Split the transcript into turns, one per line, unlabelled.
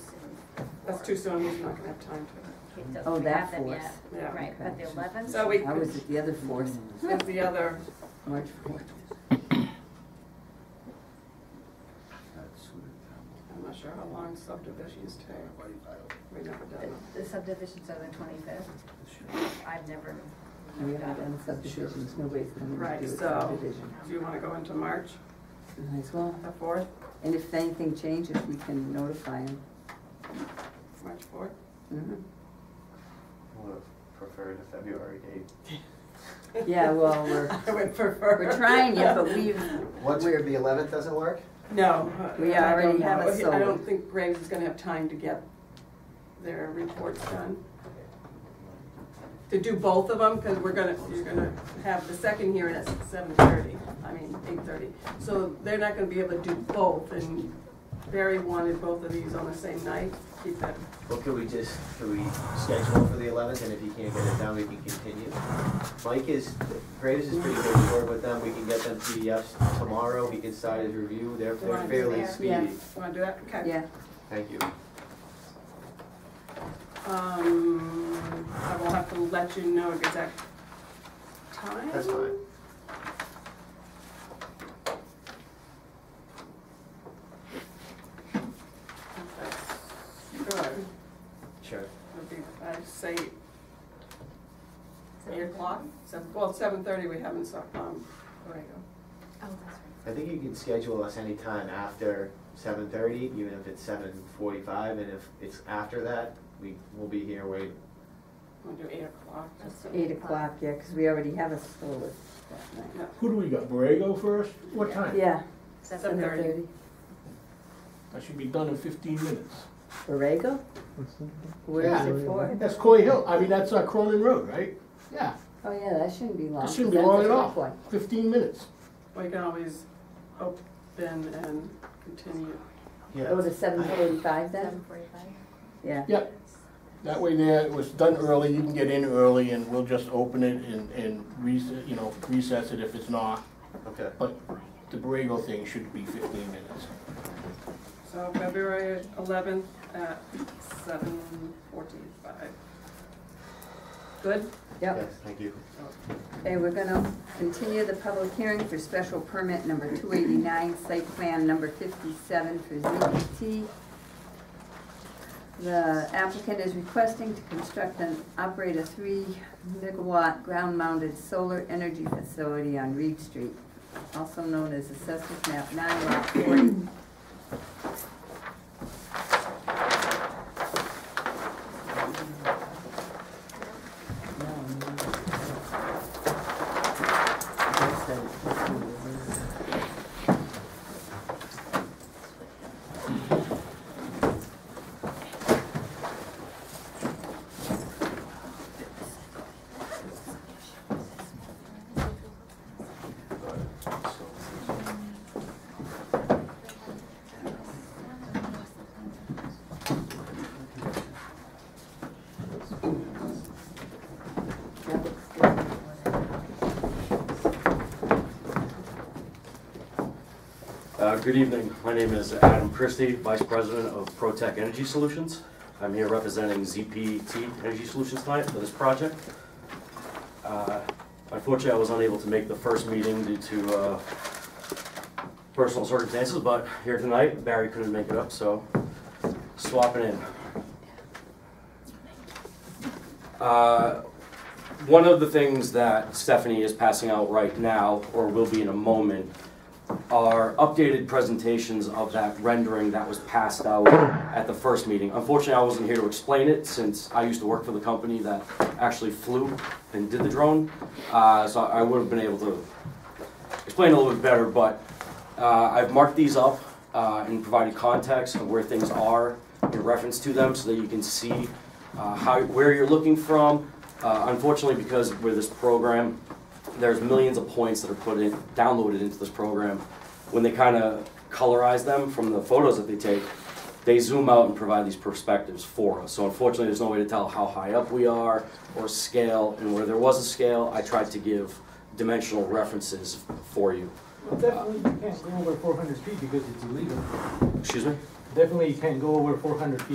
That's too soon, we're not gonna have time to.
It doesn't
Oh, that
have them
force.
yet.
Yeah.
Right, but the
Okay.
eleventh.
So we,
I was at the other fourth,
that's the other,
March fourth.
I'm not sure how long subdivisions take. We've never done them.
The subdivisions are the twenty-fifth. I've never.
We haven't
done it.
done subdivisions, nobody's coming to
Right,
do a
so-
subdivision.
Do you wanna go into March,
Might as well.
the fourth,
And if anything changes, we can notify them.
March fourth?
Mhm.
Would have preferred a February date.
Yeah, well, we're,
I would prefer.
we're trying it, but we've,
What's weird, the eleventh doesn't work?
No.
We
I don't
already have
know.
a
I don't
solid.
think Graves is gonna have time to get their reports done. To do both of them, because we're gonna, you're gonna have the second hearing at seven thirty, I mean, eight thirty. So they're not gonna be able to do both, and Barry wanted both of these on the same night, keep that,
Well, could we just, could we schedule for the eleventh, and if you can't get it done, we can continue? Mike is, Graves is pretty good to work with them, we can get them PDFs tomorrow, he can start his review, they're, they're
Right,
fairly
yeah.
speedy.
wanna do that? Okay.
yeah,
Thank you.
Um, I will have to let you know exact time.
That's fine.
If that's good.
Sure.
Would be, I'd say eight o'clock, seven, well, seven thirty, we haven't, so, um, there we go.
Oh, that's right.
I think you can schedule us anytime after seven thirty, even if it's seven forty-five, and if it's after that, we will be here waiting.
We'll do eight o'clock.
That's
eight o'clock, yeah, because we already have a solid that night.
Who do we got, Borrego first? What time?
Yeah,
Seven.
Seven.
seven thirty.
7:30.
I should be done in fifteen minutes.
Borrego? Where is it for?
That's Coy Hill, I mean, that's uh, Cronin Road, right? Yeah,
Oh, yeah, that shouldn't be long.
that shouldn't
'cause
be
that's
long
a
at
quick
all,
one.
fifteen minutes.
We can always open and continue.
Yeah.
Go to seven forty-five then?
Seven forty-five.
Yeah.
Yep. That way there, it was done early, you can get in early and we'll just open it and, and recess, you know, recess it if it's not.
Okay.
But the Borrego thing should be fifteen minutes.
So February eleventh at seven forty-five. Good?
Yep.
Yes, thank you.
Okay, we're gonna continue the public hearing for special permit number two eighty-nine, site plan number fifty-seven for ZPT. The applicant is requesting to construct and operate a three megawatt ground-mounted solar energy facility on Reed Street, also known as Assessors Map nine lot forty.
Uh, Good evening. My name is Adam Christie, Vice President of ProTech Energy Solutions. I'm here representing ZPT Energy Solutions tonight for this project. Uh, Unfortunately, I was unable to make the first meeting due to uh, personal circumstances, but here tonight, Barry couldn't make it up, so swapping in. Uh, One of the things that Stephanie is passing out right now, or will be in a moment, are updated presentations of that rendering that was passed out at the first meeting. Unfortunately, I wasn't here to explain it since I used to work for the company that actually flew and did the drone. Uh, so I would have been able to explain a little bit better, but, uh, I've marked these up, uh, and provided context of where things are in reference to them so that you can see, uh, how, where you're looking from. Uh, unfortunately, because with this program, there's millions of points that are put in, downloaded into this program. When they kind of colorize them from the photos that they take, they zoom out and provide these perspectives for us. So unfortunately, there's no way to tell how high up we are or scale. And where there was a scale, I tried to give dimensional references for you.
Well, Definitely you can't go over four hundred feet because it's illegal.
Excuse me?
Definitely you can't go over four hundred feet